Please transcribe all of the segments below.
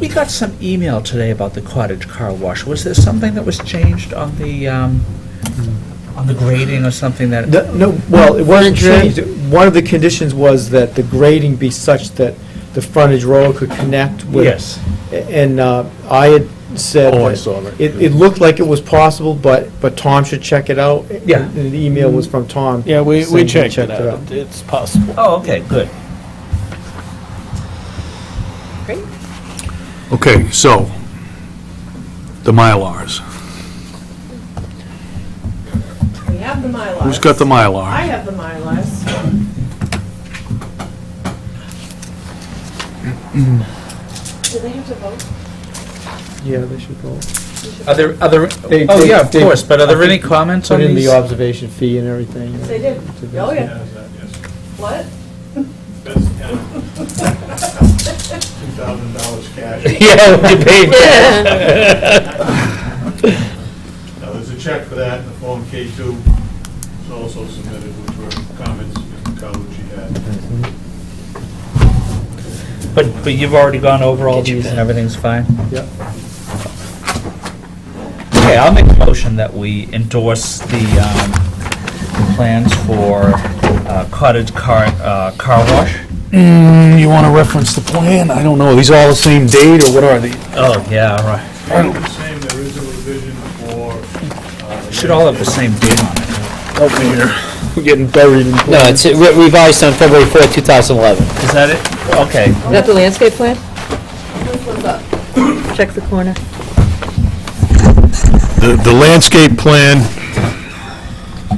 We got some email today about the cottage car wash. Was there something that was changed on the, um, on the grading or something that? No, no, well, it wasn't Frontage changed. One of the conditions was that the grading be such that the frontage road could connect with. Yes. And uh, I had said. Oh, I that saw that. It, it looked like it was possible, but, but Tom should check it out. Yeah. And the email was from Tom. Yeah, we, saying we he checked it out. It's possible. Oh, okay, good. Okay, so, the Mylars. We have the Mylars. Who's got the I Mylar? have the Mylars. Do they have to vote? Yeah, they should go. Are there, are there, They- oh, they- yeah, of they- course, but are there I any think comments on Put in these? the observation fee and everything. They did. Oh, yeah. What? $2,000 cash. Yeah, we paid that. Now, there's a check for that, in the Form K2 It's also submitted, which were comments Mr. Calucci had. But, but you've already gone over all these and everything's fine? Yep. Okay, I'll make a motion that we endorse the um, plans for uh, cottage car, uh, car wash. Mm, you wanna reference the plan? I don't know, are these all the same date, or what are they? Oh, yeah, all right. All the same, there is a revision for... uh, Should all have the same date on it. Help me here, we're getting buried in. No, it's re- revised on February 4th, 2011. Is that it? Okay. Is that the landscape plan? This one's up. Check the corner. The, the landscape plan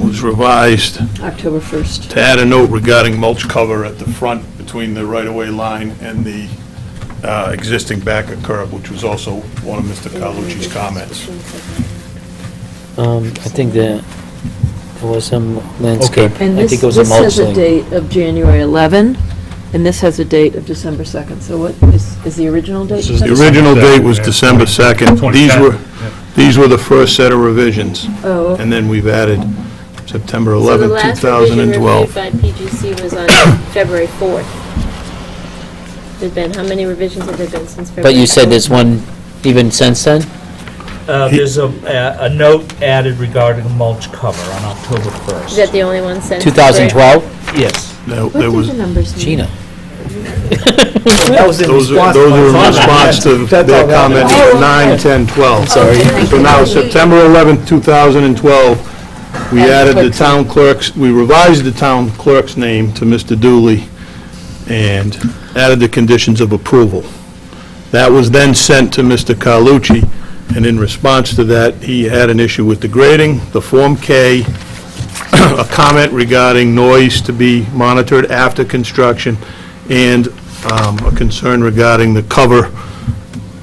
was revised October 1st. to add a note regarding mulch cover at the front between the right-of-way line and the uh, existing back of curb, which was also one of Mr. Calucci's comments. Um, I think that there was some landscape. And I this, think it was a this mulch has a thing. date of January 11, and this has a date of December 2nd. So what, is, is the original date? The December original date was December 2nd. These were, these were the first set of revisions, 2nd? Oh, okay. and then we've added September So the last 11th, revision reviewed 2012. by PGC was on February 4th. There's been, how many revisions have there been since February? But you said 4th? there's one even since then? Uh, There's a, a a note added regarding mulch cover on October Is that 1st. the only one since? 2012? Yes. There there What was, did the numbers mean? Gina. That was in those are- response. those were in to my comment. response to That's all their that comment, is. Oh, 9, 10, 12. Sorry. Okay. So now, September 11th, 2012, we Added added the clerk's town clerk's, we revised the town clerk's name to Mr. Dooley and added the conditions of approval. That was then sent to Mr. Carlucci, and in response to that, he had an issue with the grading, the Form K, a comment regarding noise to be monitored after construction, and um, a concern regarding the cover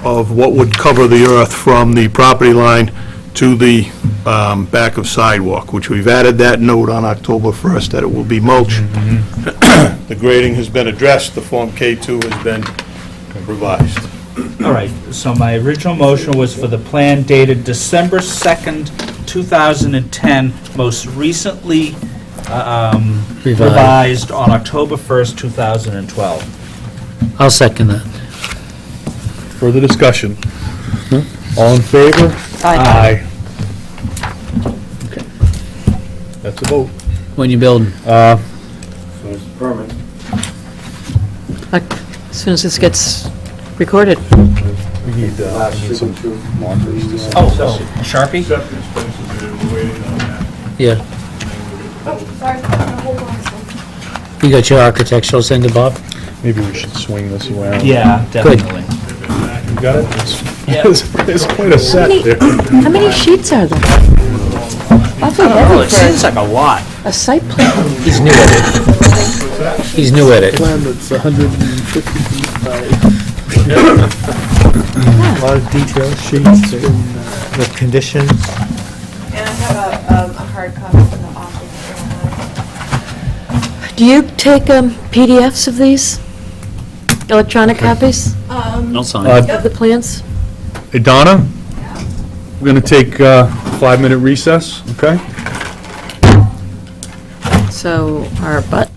of what would cover the earth from the property line to the um, back of sidewalk, which we've added that note on October 1st, that it will be mulch. The grading has been addressed, the Form K2 has been revised. All right, so my original motion was for the plan dated December 2nd, 2010, most recently uh, um, Revised. revised on October 1st, 2012. I'll second that. Further discussion? All in favor? Aye. That's a vote. When you build, Oc- As soon as this gets recorded. Oh, so Sharpie? Septic spaces, they were waiting on that. yeah. Oh, Sorry, hold on. You got your architectural send to Bob? Maybe we should swing this around. Yeah, definitely. You got it? It's- Yeah. It's quite a How set many, there. how many sheets are there? Awfully Oh, it heavy seems for like a lot. a- a site plan. He's new at it. He's new at it. plan that's 150 feet by, a lot of detail sheets and uh, the conditions. And I have a, um, a hard copy from the office. Do you take um, PDFs of these? Electronic copies Um, sign. of the plans? Hey, Donna, we're going to take uh, a five-minute recess, okay? So our butt